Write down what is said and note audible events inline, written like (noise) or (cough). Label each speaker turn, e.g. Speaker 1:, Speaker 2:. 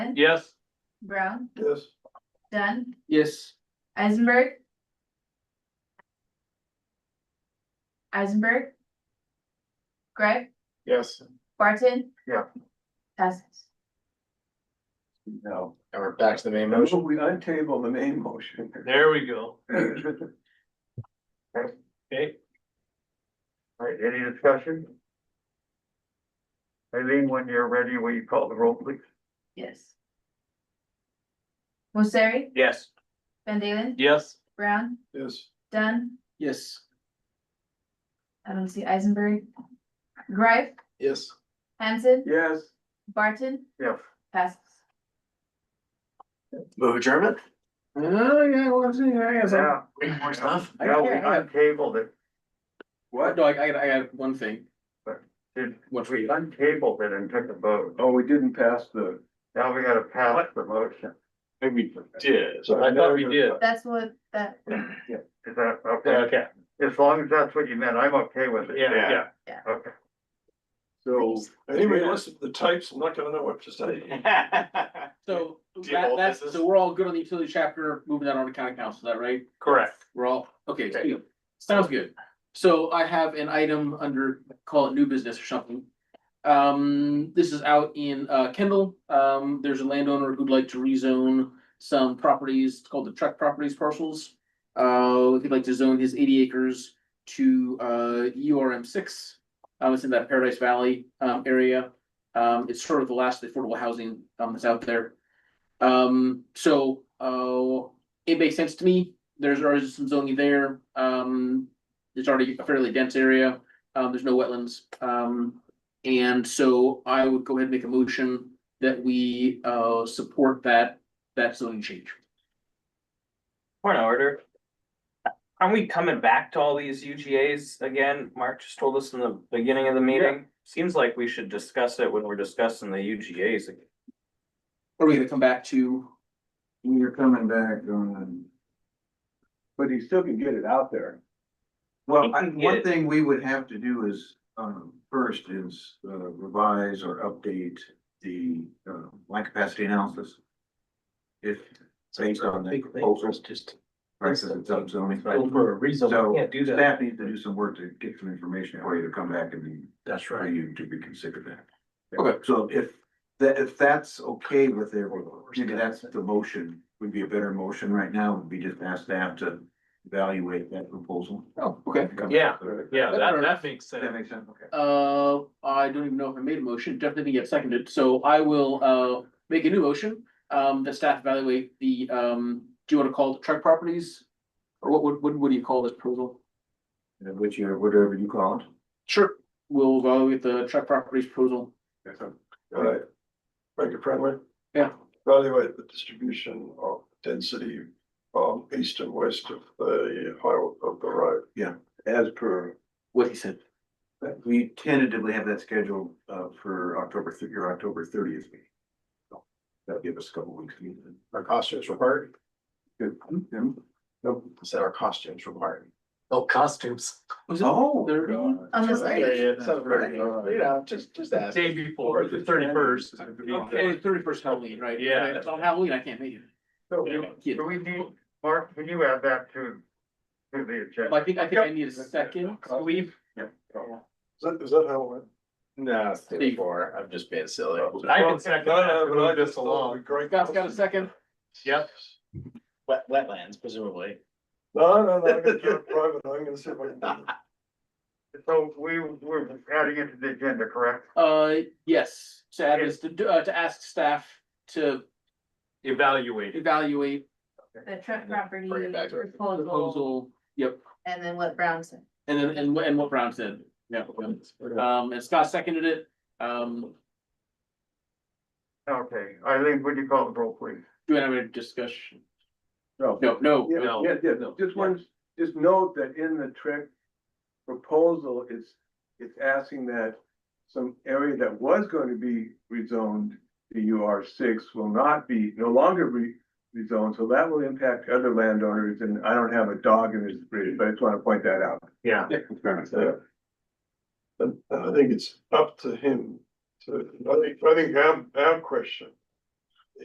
Speaker 1: Smith,
Speaker 2: Yes.
Speaker 1: Brown,
Speaker 2: Yes.
Speaker 1: Dunn,
Speaker 2: Yes.
Speaker 1: Eisenberg. Eisenberg. Greg,
Speaker 2: Yes.
Speaker 1: Barton.
Speaker 2: Yeah.
Speaker 1: Passes.
Speaker 2: No.
Speaker 3: And we're back to the main motion.
Speaker 2: We untable the main motion. There we go. Okay.
Speaker 4: Alright, any discussion? Eileen, when you're ready, will you call the roll, please?
Speaker 1: Yes. Mosari,
Speaker 2: Yes.
Speaker 1: Van Dalen,
Speaker 2: Yes.
Speaker 1: Brown,
Speaker 2: Yes.
Speaker 1: Dunn,
Speaker 2: Yes.
Speaker 1: I don't see Eisenberg. Greif,
Speaker 3: Yes.
Speaker 1: Hanson,
Speaker 2: Yes.
Speaker 1: Barton,
Speaker 4: Yes.
Speaker 1: passes.
Speaker 3: Move adjournment?
Speaker 2: Oh, yeah, well, I'm seeing, I guess.
Speaker 4: Yeah.
Speaker 3: More stuff?
Speaker 2: I
Speaker 4: No,
Speaker 2: got-
Speaker 4: we
Speaker 2: I got-
Speaker 4: untabled it,
Speaker 2: What?
Speaker 3: No, I, I got, I got one thing.
Speaker 4: did,
Speaker 3: What's
Speaker 4: we untabled it and took a vote,
Speaker 2: Oh, we didn't pass the.
Speaker 4: now we gotta pass the motion,
Speaker 2: Maybe we did.
Speaker 3: So I thought we did.
Speaker 1: That's what that,
Speaker 4: is that, okay?
Speaker 2: Okay,
Speaker 4: As long as that's what you meant, I'm okay with it.
Speaker 2: yeah, yeah.
Speaker 4: Okay,
Speaker 2: So.
Speaker 5: Anyway, listen, the types, I'm not gonna know what to say.
Speaker 6: (laughs)
Speaker 3: So
Speaker 5: you have
Speaker 3: that,
Speaker 5: all
Speaker 3: that's,
Speaker 5: business?
Speaker 3: so we're all good on the utility chapter, moving that on to county council, is that right?
Speaker 2: Correct.
Speaker 3: We're all, okay,
Speaker 2: Okay.
Speaker 3: sweet. sounds good. So I have an item under, call it new business or something. Um, this is out in uh Kendall, um, there's a landowner who'd like to rezone some properties, it's called the Truck Properties parcels. Uh, he'd like to zone his eighty acres to uh U R M six, um, it's in that Paradise Valley um area. Um, it's sort of the last affordable housing um that's out there. Um, so uh it makes sense to me. There's already some zoning there. Um, it's already a fairly dense area. Um, there's no wetlands. Um, and so I would go ahead and make a motion that we, uh, support that, that zoning change.
Speaker 6: Point of order. Aren't we coming back to all these UGAs again? Mark just told us in the beginning of the meeting. Seems like we should discuss it when we're discussing the UGAs. again.
Speaker 3: Are we gonna come back to?
Speaker 2: You're coming back on. But he still can get it out there.
Speaker 6: He
Speaker 7: Well, I,
Speaker 6: can
Speaker 7: one
Speaker 6: get-
Speaker 7: thing we would have to do is, um, first is uh, revise or update the, uh, line capacity analysis. If based on the proposals,
Speaker 3: just.
Speaker 7: prices and subzoning.
Speaker 3: for a
Speaker 7: So
Speaker 6: Can't do that.
Speaker 7: staff needs to do some work to get some information for you to come back and then
Speaker 3: That's
Speaker 7: for you to reconsider that.
Speaker 3: Okay.
Speaker 7: So if, that, if that's okay with everyone, maybe that's the motion, would be a better motion right now, would be just ask staff to evaluate that proposal.
Speaker 3: Oh, okay.
Speaker 7: and come back
Speaker 2: Yeah,
Speaker 7: with it.
Speaker 2: yeah, that, that makes
Speaker 7: Does That
Speaker 2: sense.
Speaker 7: makes sense, okay.
Speaker 3: Uh, I don't even know if I made a motion, definitely get seconded, so I will, uh, make a new motion. Um, the staff evaluate the, um, do you wanna call it truck properties? Or what, what, what- what do you call this proposal?
Speaker 7: Uh, Which, you- whatever you call it.
Speaker 3: Sure, we'll evaluate the truck properties proposal,
Speaker 5: Alright. Make it friendly,
Speaker 3: yeah.
Speaker 5: evaluate the distribution of density um east and west of the highway of the road.
Speaker 7: Yeah.
Speaker 5: As per.
Speaker 3: What he said.
Speaker 7: But We tentatively have that scheduled uh for October, thir- your October thirtieth meeting. So, That'll give us a couple weeks.
Speaker 8: Our costumes required?
Speaker 7: Good.
Speaker 8: Nope. Is that our costumes required?
Speaker 3: Oh, costumes. Was it
Speaker 7: Oh.
Speaker 3: thirty?
Speaker 7: God.
Speaker 1: On the
Speaker 7: That's right.
Speaker 1: thirtieth.
Speaker 8: it sounds very- You know, just, just ask.
Speaker 2: Day before, the thirty first.
Speaker 3: Okay, thirty first Halloween, right?
Speaker 2: Yeah.
Speaker 3: If it's On Halloween, I can't make it.
Speaker 4: so
Speaker 3: Kid.
Speaker 4: do we need, Mark, can you add that to, to the agenda?
Speaker 3: I think, I think I need a second.
Speaker 2: We've,
Speaker 5: Is that, is that how it
Speaker 8: No, it's day before. I'm just being silly.
Speaker 5: went?
Speaker 2: I can second
Speaker 5: No, no,
Speaker 2: that.
Speaker 5: but I just thought it'd be Great.
Speaker 3: Scott's got a second.
Speaker 2: Yep.
Speaker 8: Wet, wetlands presumably.
Speaker 5: No, no, no, I'm gonna do it private, I'm gonna see if I can. do it.
Speaker 4: (laughs) So we, we're adding it to the agenda, correct?
Speaker 3: Uh, yes, to add is to, do- uh, to ask staff to
Speaker 2: Evaluate it.
Speaker 3: evaluate
Speaker 1: the truck property
Speaker 8: Bring it back to our
Speaker 1: proposal,
Speaker 3: proposal, yep,
Speaker 1: and then what Brown said.
Speaker 3: and then, and what, and what Brown said, yeah. Um, and Scott seconded it, um,
Speaker 4: Okay, Eileen, would you call the roll, please?
Speaker 3: do we have a discussion?
Speaker 2: No.
Speaker 3: No, no,
Speaker 2: Yeah,
Speaker 3: no.
Speaker 2: yeah, yeah,
Speaker 3: no.
Speaker 2: just one, just note that in the trick proposal, it's, it's asking that some area that was going to be rezoned to UR six will not be, no longer re- rezoned, so that will impact other landowners, and I don't have a dog in this bridge, but I just want to point that out.
Speaker 4: Yeah.
Speaker 5: Yeah. And, and I think it's up to him to, I think, I think our, our question